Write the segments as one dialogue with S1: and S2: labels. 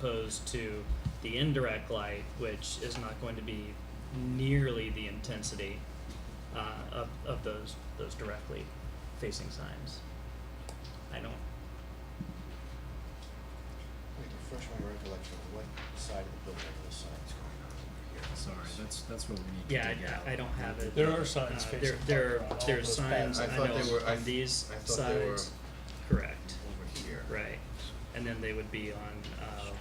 S1: opposed to the indirect light, which is not going to be nearly the intensity uh, of, of those, those directly facing signs. I don't,
S2: Wait, refresh my recollection, what side of the building are the signs going on over here?
S3: Sorry, that's, that's what we need to
S1: yeah,
S3: dig out.
S1: I, I don't have it.
S4: There are signs
S1: Uh,
S4: facing
S1: there- There,
S4: parking
S1: are-
S4: lot, all
S1: there are
S4: those
S1: signs, I
S2: back- I thought they
S1: know,
S2: were- I
S1: on
S2: th-
S1: these
S2: I thought they were-
S1: sides, correct,
S2: Over here.
S1: right, and then they would be on, uh,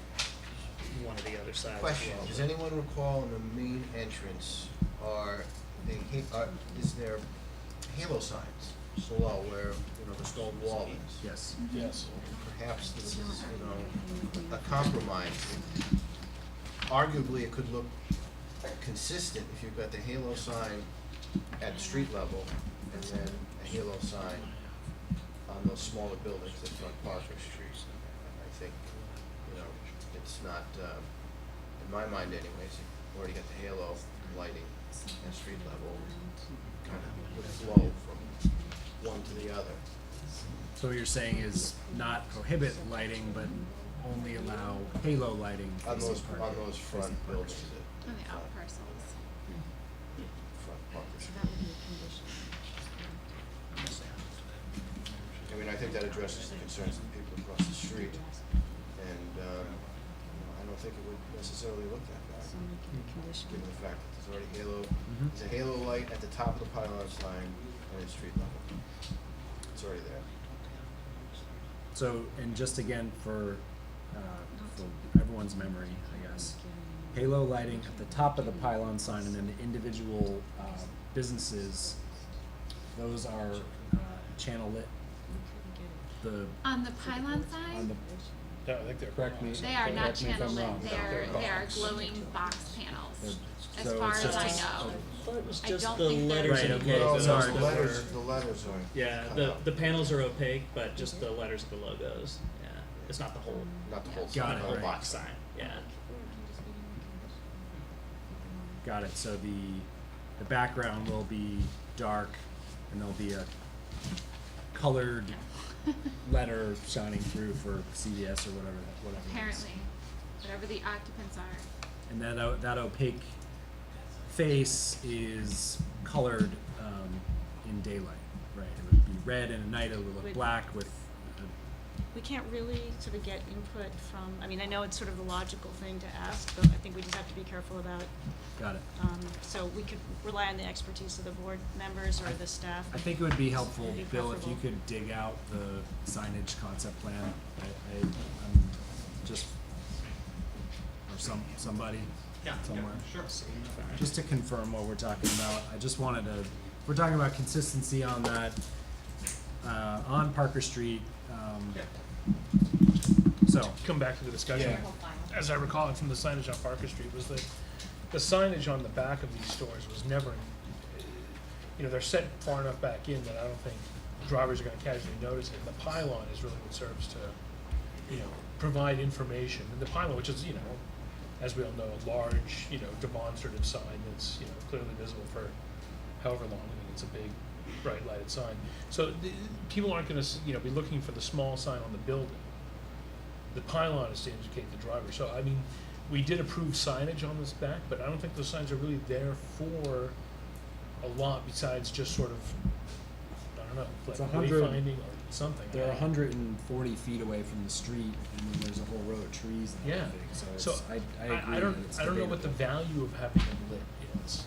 S1: one of the other sides as well.
S2: Question, does
S1: but-
S2: anyone recall in the main entrance, are the, ha- are, is there halo signs below where, you know, the stone wall is?
S3: Yes,
S4: Yes.
S2: Perhaps this is, you know, a compromise. Arguably, it could look consistent if you've got the halo sign at street level and then a halo sign on those smaller buildings that front Parker Street. I think, you know, it's not, uh, in my mind anyways, you've already got the halo lighting at street level, kind of would flow from one to the other.
S3: so what you're saying is not prohibit lighting, but only allow halo lighting
S2: On
S3: facing
S2: those,
S3: Parker.
S2: on those front
S3: facing Parker
S2: buildings
S3: Street.
S2: at
S5: On the out parcels,
S2: front Parker
S5: so
S2: Street.
S5: that would be a condition.
S2: I mean, I think that addresses the concerns of the people across the street, and, um, you know, I don't think it would necessarily look that bad,
S5: So make it a condition.
S2: given the fact that there's already halo,
S3: Mhm.
S2: there's a halo light at the top of the pylon's line and at street level. It's already there.
S3: So, and just again for, uh, for everyone's memory, I guess, halo lighting at the top of the pylon sign and then the individual, uh, businesses, those are, uh, channel lit, the,
S5: On the pylon
S3: on
S5: sign,
S3: the,
S4: Yeah, I think they're.
S3: Correct me-
S5: they are not
S3: correct me if I'm
S5: channel
S3: wrong.
S5: lit, they are,
S2: They're
S5: they are
S2: box.
S5: glowing box panels,
S3: they're,
S5: as
S3: so
S5: far
S3: it's
S5: as
S3: just
S5: I
S3: a-
S5: know.
S1: thought it was
S5: I
S1: just
S5: don't
S1: the
S5: think there's-
S1: letters.
S3: Right,
S1: and
S3: okay,
S1: logos
S2: Well,
S3: those
S2: the
S3: are-
S1: that
S2: letters,
S1: were-
S2: the letters are.
S1: Yeah,
S2: cut
S1: the,
S2: out.
S1: the panels are opaque, but just
S3: Mm-hmm.
S1: the letters of the logos. Yeah, it's not the whole,
S2: Not the whole
S3: Got
S2: sign.
S1: not
S3: it,
S1: the whole
S3: right.
S1: box sign. Yeah,
S3: Got it. So the the background will be dark, and there'll be a colored letter shining through for CVS or whatever that whatever. it is.
S5: Apparently, whatever the occupants are,
S3: And that o- that opaque face is colored um, in daylight, right? It would be red, and at night it would look
S6: Would-
S3: black with. uh, A,
S6: We can't really sort of get input from, I mean, I know it's sort of the logical thing to ask, but I think we just have to be careful about,
S3: got it.
S6: um, so we could rely on the expertise of the board members or the staff.
S3: I think it would be helpful,
S6: Be
S3: Bill, if you
S6: preferable.
S3: could dig out the signage concept plan. I, I, I'm just, or some, somebody, somewhere. Just to confirm what we're talking about, I just wanted to, we're talking about consistency on that, uh, on Parker Street, um, so,
S4: Come back to the discussion.
S3: Yeah.
S4: As I recall it from the signage on Parker Street was that the signage on the back of these stores was never, you know, they're set far enough back in that I don't think drivers are gonna casually notice it. The pylon is really what serves to, you know, provide information. And the pylon, which is, you know, as we all know, a large, you know, demonstrative sign that's, you know, clearly visible for however long. I mean, it's a big, bright lighted sign. So the, people aren't gonna, s- you know, be looking for the small sign on the building the pylon is to indicate the driver. So, I mean, we did approve signage on this back, but I don't think those signs are really there for a lot besides just sort of, I don't know, like
S3: It's a hundred-
S4: wayfinding or something.
S3: they're a hundred and forty feet away from the street, and then there's a whole row of trees and
S4: Yeah.
S3: everything, so it's,
S4: So,
S3: I, I agree,
S4: I, I don't,
S3: it's
S4: I don't know what the
S3: debatable.
S4: value of having them lit is.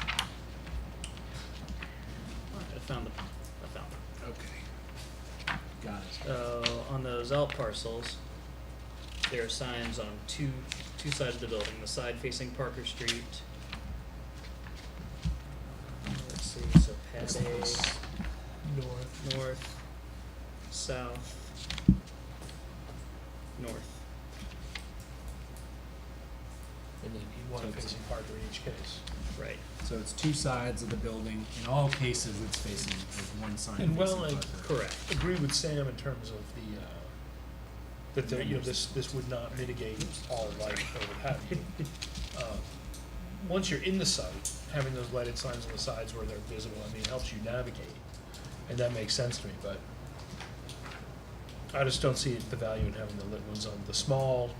S1: I found the, I found them.
S3: Got it.
S1: So Oh, on those out parcels, there are signs on two two sides of the building. The side facing Parker Street. Uh, Let's see, so pad A.
S4: North.
S1: north, south, north.
S4: And then one facing Parker in each case.
S1: Right.
S3: So it's two sides of the building. In all cases, it's facing like one sign.
S4: And well,
S3: facing
S4: like,
S3: Parker.
S1: Correct.
S4: Agree with Sam in terms of the, uh, that there, you know, this, this would not mitigate all light or what have you. Uh, Once you're in the site, having those lighted signs on the sides where they're visible, I mean, it helps you navigate, and that makes sense to me, but I just don't see the value in having the lit ones on the small